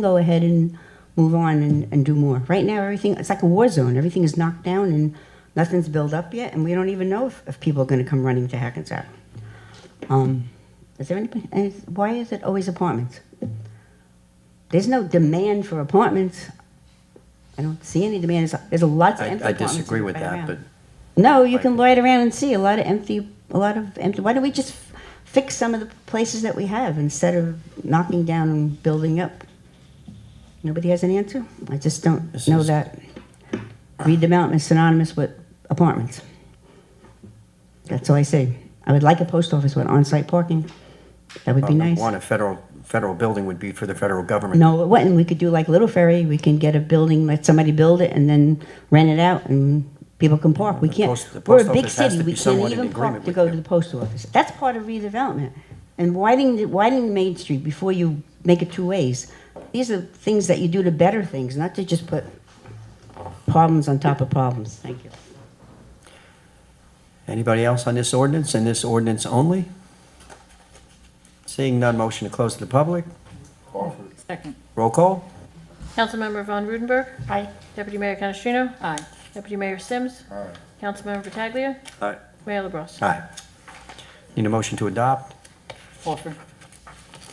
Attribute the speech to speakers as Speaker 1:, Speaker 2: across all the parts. Speaker 1: go ahead and move on and, and do more. Right now, everything, it's like a war zone. Everything is knocked down and nothing's built up yet, and we don't even know if, if people are gonna come running to Hackensack. Um, is there anybody, and it's- why is it always apartments? There's no demand for apartments. I don't see any demand. There's- There's a lot of
Speaker 2: I,
Speaker 1: empty
Speaker 2: I
Speaker 1: apartments.
Speaker 2: disagree with
Speaker 1: right
Speaker 2: that,
Speaker 1: around.
Speaker 2: but
Speaker 1: No, you can
Speaker 2: Like-
Speaker 1: loiter around and see a lot of empty, a lot of empty. Why don't we just f- fix some of the places that we have instead of knocking down and building up? Nobody has an answer? I just don't
Speaker 2: This
Speaker 1: know
Speaker 2: is-
Speaker 1: that redevelopment is synonymous with apartments. That's all I say. I would like a post office with on-site parking. That would be
Speaker 2: uh,
Speaker 1: nice.
Speaker 2: one, a federal, federal building would be for the federal government.
Speaker 1: No, it wouldn't. We could do like Little Ferry. We can get a building, let somebody build it and then rent it out and people can park. We
Speaker 2: The
Speaker 1: can't,
Speaker 2: post- the
Speaker 1: we're
Speaker 2: post
Speaker 1: a big
Speaker 2: office has
Speaker 1: city.
Speaker 2: to
Speaker 1: We
Speaker 2: be somewhat
Speaker 1: can't
Speaker 2: in
Speaker 1: even park
Speaker 2: agreement
Speaker 1: to
Speaker 2: with
Speaker 1: go to
Speaker 2: you.
Speaker 1: the post office. That's part of redevelopment. And widening, the- widening Main Street before you make it two ways. These are things that you do to better things, not to just put problems on top of problems. Thank you.
Speaker 2: Anybody else on this ordinance and this ordinance only? Seeing none, motion to close to the public.
Speaker 3: Second.
Speaker 2: Roll call?
Speaker 4: Councilmember Von Rudenberg.
Speaker 3: Aye.
Speaker 4: Deputy Mayor Canestrino.
Speaker 3: Aye.
Speaker 4: Deputy Mayor Sims. Aye. Councilmember Pataglia.
Speaker 2: Aye.
Speaker 4: Mayor LaBrus.
Speaker 2: Aye. Need a motion to adopt?
Speaker 3: Offer.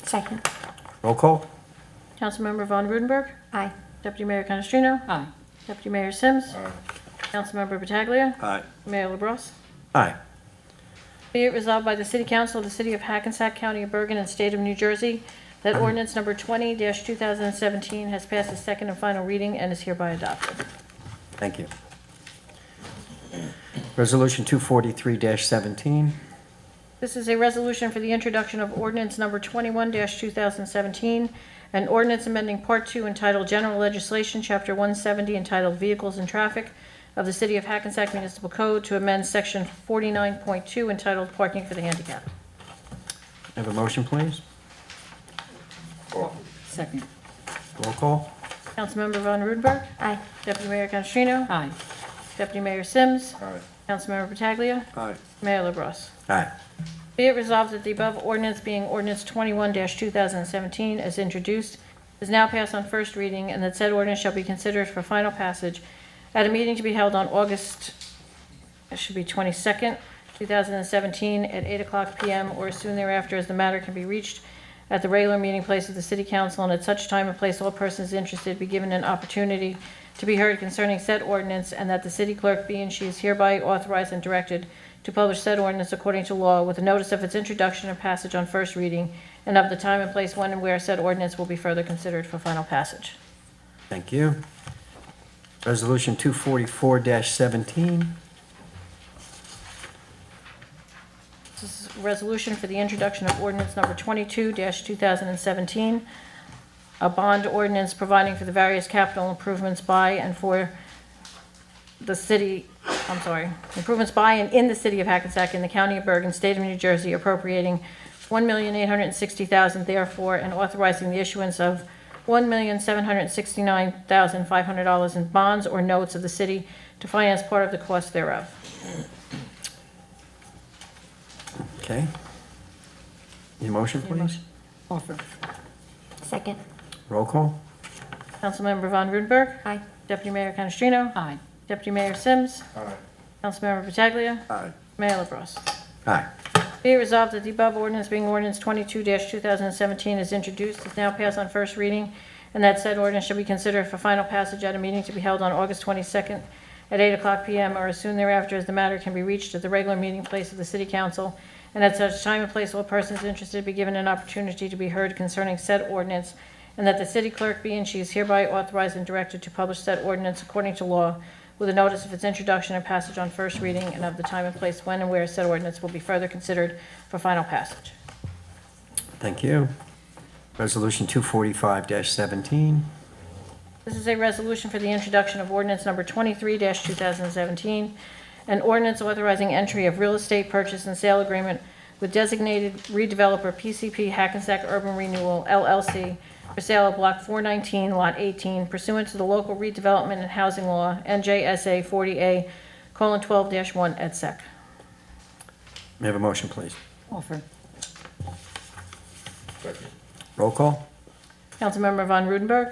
Speaker 4: Second.
Speaker 2: Roll call?
Speaker 4: Councilmember Von Rudenberg.
Speaker 3: Aye.
Speaker 4: Deputy Mayor Canestrino.
Speaker 3: Aye.
Speaker 4: Deputy Mayor Sims. Aye. Councilmember Pataglia.
Speaker 2: Aye.
Speaker 4: Mayor LaBrus.
Speaker 2: Aye.
Speaker 4: Be it resolved by the City Council of the City of Hackensack County of Bergen and State of New Jersey that ordinance number 20-2017 has passed its second and final reading and is hereby adopted.
Speaker 2: Thank you. Resolution 243-17.
Speaker 4: This is a resolution for the introduction of ordinance number 21-2017, an ordinance amending Part 2 entitled General Legislation, Chapter 170 entitled Vehicles and Traffic of the City of Hackensack Municipal Code to amend Section 49.2 entitled Parking for the Handicapped.
Speaker 2: Have a motion, please?
Speaker 3: Second.
Speaker 2: Roll call?
Speaker 4: Councilmember Von Rudenberg. Aye. Deputy Mayor Canestrino.
Speaker 3: Aye.
Speaker 4: Deputy Mayor Sims. Aye. Councilmember Pataglia.
Speaker 2: Aye.
Speaker 4: Mayor LaBrus.
Speaker 2: Aye.
Speaker 4: Be it resolved that the above ordinance being ordinance 21-2017 as introduced is now passed on first reading and that said ordinance shall be considered for final passage at a meeting to be held on August, it should be 22nd, 2017, at 8 o'clock PM or soon thereafter as the matter can be reached at the regular meeting place of the city council and at such time and place all persons interested be given an opportunity to be heard concerning said ordinance and that the city clerk be and she is hereby authorized and directed to publish said ordinance according to law with a notice of its introduction and passage on first reading and of the time and place when and where said ordinance will be further considered for final passage.
Speaker 2: Thank you. Resolution 244-17.
Speaker 4: This is a resolution for the introduction of ordinance number 22-2017, a bond ordinance providing for the various capital improvements by and for the city, I'm sorry, improvements by and in the city of Hackensack in the county of Bergen, state of New Jersey appropriating $1,860,000 therefore and authorizing the issuance of $1,769,500 in bonds or notes of the city to finance part of the cost thereof.
Speaker 2: Okay. Need a motion, please?
Speaker 3: Offer.
Speaker 4: Second.
Speaker 2: Roll call?
Speaker 4: Councilmember Von Rudenberg.
Speaker 3: Aye.
Speaker 4: Deputy Mayor Canestrino.
Speaker 3: Aye.
Speaker 4: Deputy Mayor Sims. Aye. Councilmember Pataglia.
Speaker 2: Aye.
Speaker 4: Mayor LaBrus.
Speaker 2: Aye.
Speaker 4: Be it resolved that the above ordinance being ordinance 22-2017 is introduced, is now passed on first reading, and that said ordinance shall be considered for final passage at a meeting to be held on August 22nd at 8 o'clock PM or as soon thereafter as the matter can be reached at the regular meeting place of the city council, and at such time and place all persons interested be given an opportunity to be heard concerning said ordinance, and that the city clerk be and she is hereby authorized and directed to publish said ordinance according to law with a notice of its introduction and passage on first reading and of the time and place when and where said ordinance will be further considered for final passage.
Speaker 2: Thank you. Resolution 245-17.
Speaker 4: This is a resolution for the introduction of ordinance number 23-2017, an ordinance authorizing entry of real estate purchase and sale agreement with designated redeveloper PCP Hackensack Urban Renewal LLC for sale of Block 419, Lot 18 pursuant to the local redevelopment and housing law, NJSA 40A:12-1 et sec.
Speaker 2: May I have a motion, please?
Speaker 3: Offer.
Speaker 2: Roll call?
Speaker 4: Councilmember Von Rudenberg.